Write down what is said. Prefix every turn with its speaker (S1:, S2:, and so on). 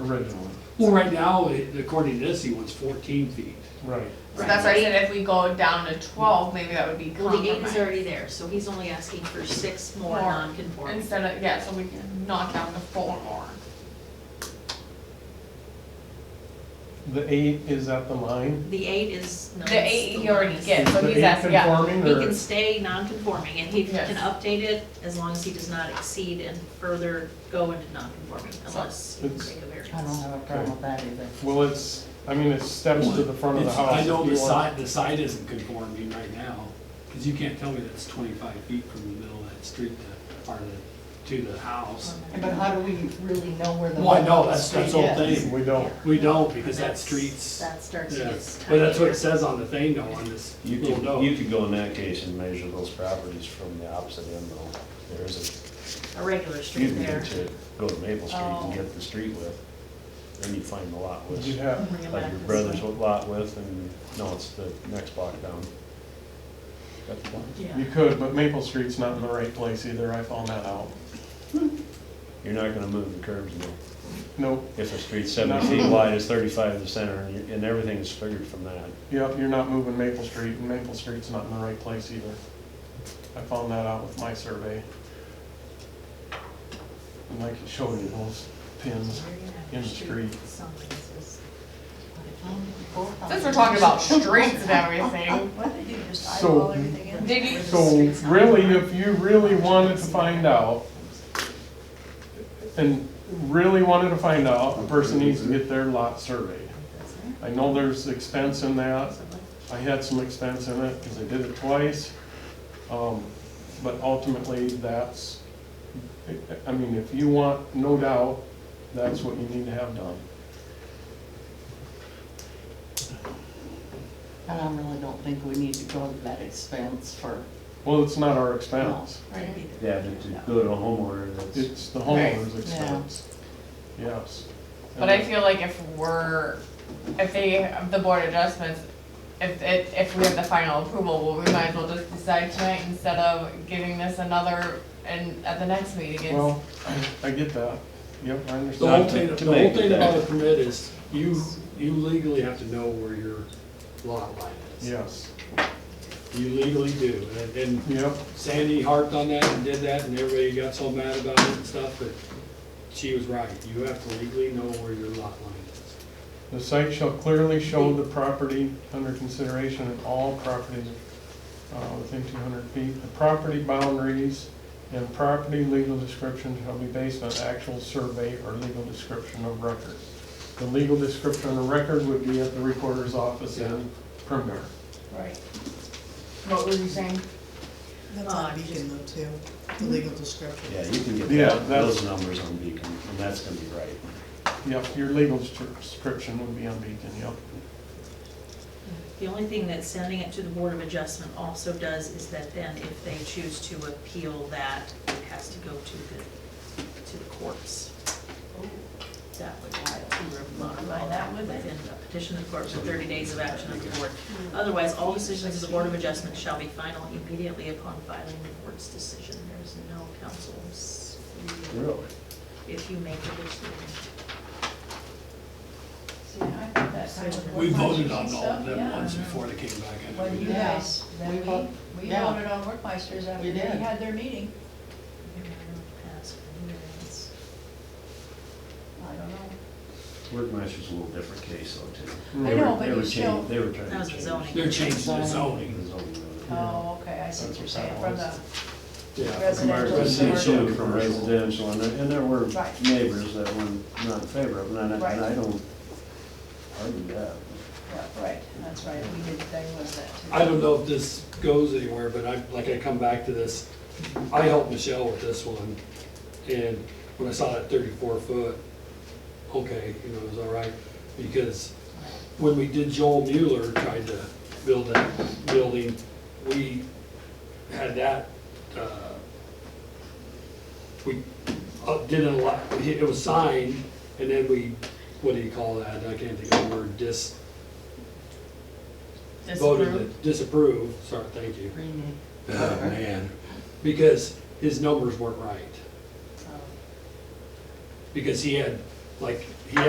S1: originally,
S2: Well, right now, it- according to this, he wants fourteen feet.
S1: right.
S3: So that's why I said if we go down to twelve, maybe that would be
S4: Well, the eight is
S3: compromised.
S4: already there, so he's only asking for six
S3: More.
S4: more non-conforming.
S3: Instead of, yeah, so we can knock down the four more.
S1: The eight is at the line.
S4: The eight is. no,
S3: The
S4: it's
S3: eight
S4: the
S3: he already
S4: lowest.
S3: gets, so
S1: The
S3: he's
S1: eight
S3: asking, yeah.
S1: Conforming
S4: He
S1: or,
S4: can stay non-conforming and he
S3: Yes.
S4: can update it as long as he does not exceed and further go into non-conforming unless you
S1: It's-
S4: take a
S5: I don't
S4: variance.
S5: have a problem with that either.
S1: well, it's, I mean, it steps to the front of the
S2: It's-
S1: house.
S2: I know
S1: if you
S2: the
S1: want-
S2: side, the side isn't conforming right now, because you can't tell me that's twenty-five feet from the middle of that street to, or the, to the house.
S5: But how do we really know where the.
S2: Well, I know,
S5: the
S2: that's- that's
S5: street
S2: the whole
S5: is?
S2: thing.
S1: We don't.
S2: We don't, because that
S4: That's-
S2: street's,
S4: That starts to
S2: yeah,
S4: get
S2: but that's what
S4: tiny.
S2: it says on the thing though, on this
S6: You
S2: little
S6: could, you
S2: note.
S6: could go in that case and measure those properties from the opposite end though. There is
S4: A regular
S6: a, you
S4: street
S6: can
S4: there.
S6: get to, go to Maple Street
S4: Oh.
S6: and get the street width. Then you find the lot width,
S1: You have,
S4: Bring it
S6: like
S4: back
S6: your
S4: this
S6: brother's
S4: way.
S6: lot width and, no, it's the next block down. That's the one.
S4: Yeah.
S1: you could, but Maple Street's not in the right place either, I found that out.
S6: You're not gonna move the curbs no.
S1: Nope,
S6: If the street's seventy feet wide, it's thirty-five in the center and you- and everything is figured from that.
S1: yep, you're not moving Maple Street, and Maple Street's not in the right place either. I found that out with my survey. And I can show you those pins. in the street.
S3: Since we're talking about streets and everything,
S5: What did you just
S1: So-
S5: eyeball everything in?
S3: did you,
S1: So really, if you really wanted to find out, and really wanted to find out, a person needs to get their lot surveyed. I know there's expense in that, I had some expense in it, because I did it twice. Um, But ultimately, that's, I mean, if you want, no doubt, that's what you need to have done.
S5: And I really don't think we need to go to that expense for.
S1: Well, it's not our expense,
S6: Yeah, but to go to a homeowner that's,
S1: it's the homeowner's expense. Yes.
S3: but I feel like if we're, if they, the board adjustments, if, if, if we have the final approval, well, we might as well just decide tonight instead of giving this another, and at the next meeting, it's.
S1: Well, I- I get that. Yep, I
S2: The whole
S1: understand.
S2: thing,
S6: to
S2: the whole
S6: make
S2: thing
S6: that-
S2: about a permit is, you, you legally have to know where your lot line is.
S1: Yes,
S2: You legally do, and, and
S1: yep,
S2: Sandy harped on that and did that, and everybody got so mad about it and stuff, but she was right. You have to legally know where your lot line is.
S1: the site shall clearly show the property under consideration and all properties uh, within two hundred feet. The property boundaries and property legal description shall be based on actual survey or legal description of record. The legal description of record would be at the recorder's office in Primer.
S5: Right.
S3: What were you saying?
S7: That's on Beacon though too, the legal description.
S6: yeah, you can get
S1: Yeah,
S6: that-
S1: that's-
S6: those numbers on Beacon and that's gonna be right.
S1: Yep, your legal description would be on Beacon, yep.
S4: The only thing that sending it to the Board of Adjustment also does is that then if they choose to appeal that, it has to go to the, to the courts. That would have to modify that would then petition the court for thirty days of action of the board. Otherwise, all decisions of the Board of Adjustment shall be final immediately upon filing the board's decision. There's no counsel's
S6: Really?
S4: if you make a decision.
S2: We voted on all of them once before they came back. I
S8: What do you
S2: know.
S5: Yeah.
S8: guys, then
S5: We
S8: we, we
S5: vote- yeah.
S8: voted on Workmeisters after
S5: We
S8: they
S5: did.
S8: had their meeting.
S4: Pass for variance.
S8: I don't know.
S6: Wordmeister's a little different case though too.
S8: I
S6: They
S8: know,
S6: were-
S8: but
S6: they
S8: you
S6: were
S8: still-
S6: changing- They were trying to
S4: That was
S6: change.
S4: the zoning.
S2: They're changing the zoning.
S6: the zoning of it.
S8: Oh, okay, I see what you're saying, from the,
S2: Yeah.
S8: Residential.
S6: Residential from residential, and there, and there were
S8: Right.
S6: neighbors that were not in favor of it, and I, and I
S8: Right.
S6: don't argue that.
S8: yeah, right, that's right, we did, they was that too.
S2: I don't know if this goes anywhere, but I, like, I come back to this. I helped Michelle with this one, and when I saw that thirty-four foot, okay, you know, it was all right. Because when we did Joel Mueller tried to build that building, we had that, uh, we uh, did a lot, it was signed, and then we, what do you call that? I can't think of the word, dis, voted to disapprove, sorry, thank you. Oh, man. Because his numbers weren't right. Because he had, like, he had